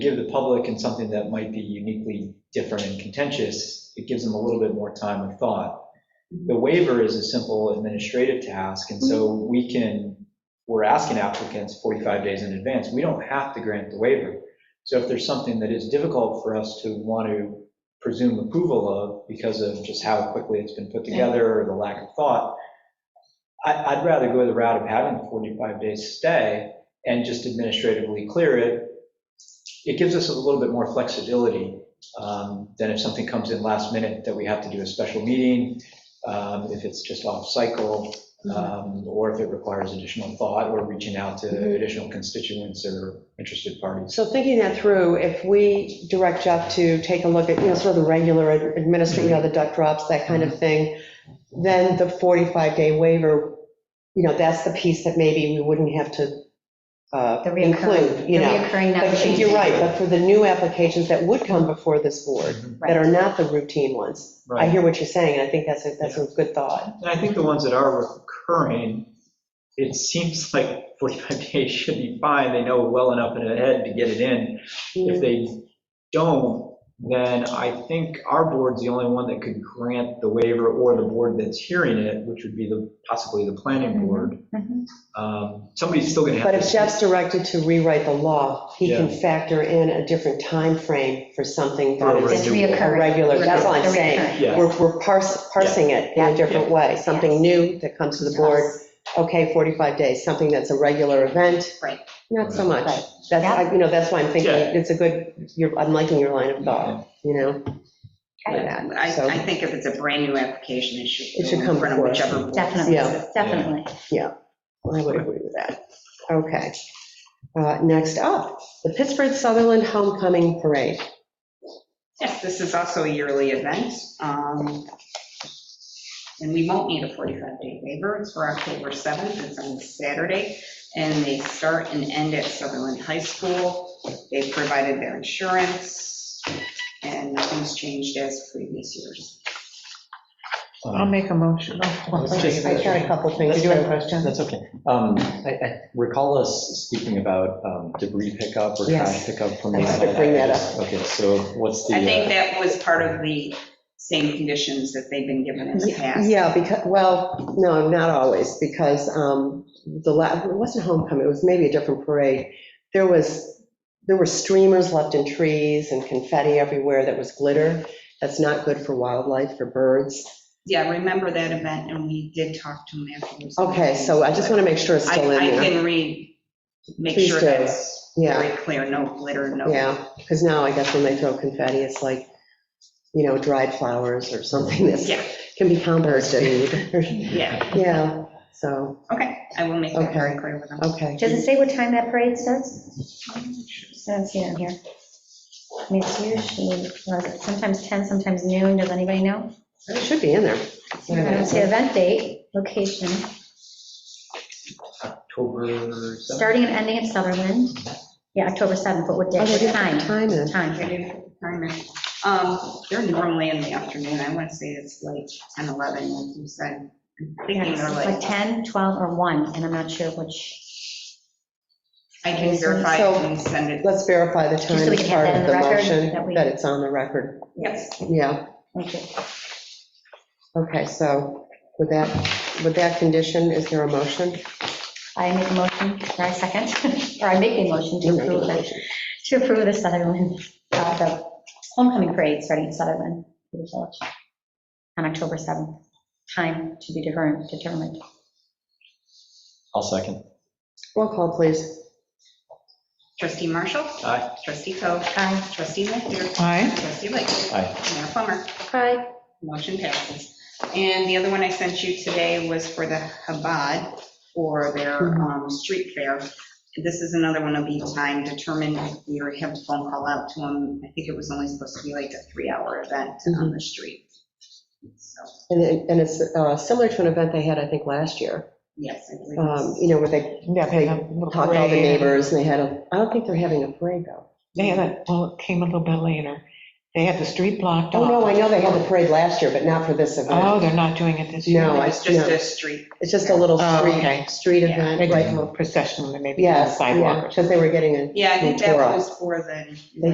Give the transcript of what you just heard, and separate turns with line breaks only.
give the public in something that might be uniquely different and contentious, it gives them a little bit more time and thought. The waiver is a simple administrative task, and so we can, we're asking applicants 45 days in advance. We don't have to grant the waiver. So if there's something that is difficult for us to want to presume approval of because of just how quickly it's been put together or the lack of thought, I, I'd rather go the route of having the 45 days stay and just administratively clear it. It gives us a little bit more flexibility um, than if something comes in last minute that we have to do a special meeting, um, if it's just off cycle, um, or if it requires additional thought or reaching out to additional constituents or interested parties.
So thinking that through, if we direct Jeff to take a look at, you know, sort of the regular administering, you know, the duck drops, that kind
Mm-hmm.
of thing, then the 45-day waiver, you know, that's the piece that maybe we wouldn't have to uh,
The
include,
reoccurring, the
you know.
reoccurring never
But
changing.
you're right, but for the new applications that would come before this board, that are not the routine ones, I hear what you're saying, and I think that's a, that's a good thought.
And I think the ones that are recurring, it seems like 45 days should be fine. They know well enough in ahead to get it in. If they don't, then I think our board's the only one that could grant the waiver or the board that's hearing it, which would be the, possibly the planning board.
Mhm.
Um, Somebody's still going to have
Mm-hmm. But
to.
if Jeff's directed to rewrite the law, he can factor in a different time frame for something that
Right,
is
right.
It's reoccurring.
Regular, that's all I'm
The reoccurring.
saying.
Yeah,
We're, we're pars- parsing it in a different way, something new that comes to the board, okay, 45 days, something that's a regular event.
Right.
Not so much.
Right.
That's, I- you know, that's why I'm thinking,
Yeah.
it's a good, you're, I'm liking your line of thought, you know? for
Okay.
that.
I,
So-
I think if it's a brand-new application, it should.
It should
go in
come
front of
before us.
Whichever. board.
Definitely,
Yeah.
definitely.
I would agree with that. Okay. Uh, Next up, the Pittsburgh Sutherland Homecoming Parade.
Yes, this is also a yearly event. um, And we won't need a 45-day waiver. It's for October 7th. It's on Saturday. And they start and end at Sutherland High School. They provided their insurance and nothing's changed as previous years.
I'll
um,
make a motion. Oh,
Let's just-
I got a couple things.
Let's
to-
Do you have a question?
That's okay. Um, I I recall us speaking about um, debris pickup or trash
Yes.
pickup from
I
the
was
site.
gonna bring that up.
Okay, so what's the?
I
uh,
think that was part of the same conditions that they've been given in the past.
Yeah, because, well, no, not always, because um, the, la- it wasn't homecoming, it was maybe a different parade. There was, there were streamers left in trees and confetti everywhere that was glitter. That's not good for wildlife, for birds.
Yeah, I remember that event, and we did talk to him afterwards.
Okay, so I just want to make sure it's
I,
still
I
in there.
can read, make
Please
sure
do.
that's
Yeah,
very clear, no glitter, no.
yeah, because now I guess when they throw confetti, it's like, you know, dried flowers or something that's,
Yeah,
can be composted.
yeah,
Yeah, so,
okay, I will make that very clear with them.
okay.
Does it say what time that parade starts? I don't see it on here. I mean, it's usually, was it sometimes 10, sometimes noon, does anybody know?
It should be in there.
I don't see event date, location,
uh,
October 7th.
starting and ending at Sutherland. Yeah, October 7th, but what day,
Oh, they
what
didn't put
time?
Time in.
I
Time,
didn't time it. Um, They're normally in the afternoon, I want to say it's like 10, 11, like you said. I'm Thinking they're
like
like,
10, 12, or 1, and I'm not sure which,
I can verify
So-
and send it,
Let's verify the
so we
time as
can have
part of
that in
the
the record,
motion,
that we-
that it's on the record.
yes,
Yeah,
thank you.
okay, so with that, with that condition, is there a motion?
I make a motion, or I second, or I make a motion to approve the, to approve the Sutherland, uh, the homecoming parade starting in Sutherland for the village on October 7th. Time to be determined, determined.
I'll second.
Roll call, please.
trustee Marshall,
Aye.
trustee Coe,
Aye.
trustee Lanfair,
Aye.
trustee Lightfoot,
Aye.
Mayor Plummer.
Aye.
Motion passes. And the other one I sent you today was for the Habad for their um, street fair. This is another one of the time determined. We already have a phone call out to them. I think it was only supposed to be like a three-hour event on the street. So,
And it- and it's uh, similar to an event they had, I think, last year,
Yes, I believe
um,
it's-
you know, where they
Yeah,
they
had a little
talked to all the
parade.
neighbors, and they had a, I don't think they're having a parade, though.
They had a, well, it came a little bit later. They had the street blocked off.
Oh, no, I know they had the parade last year, but not for this
Oh,
event.
they're not doing it this year?
No, I-
It's just
no.
a street.
It's just a little
Oh, okay.
street, street
They
event,
did a
right?
little procession, and maybe on the
Yes,
sidewalk or
yeah, because they were getting a
Yeah, I think that
Ventura.
was more than.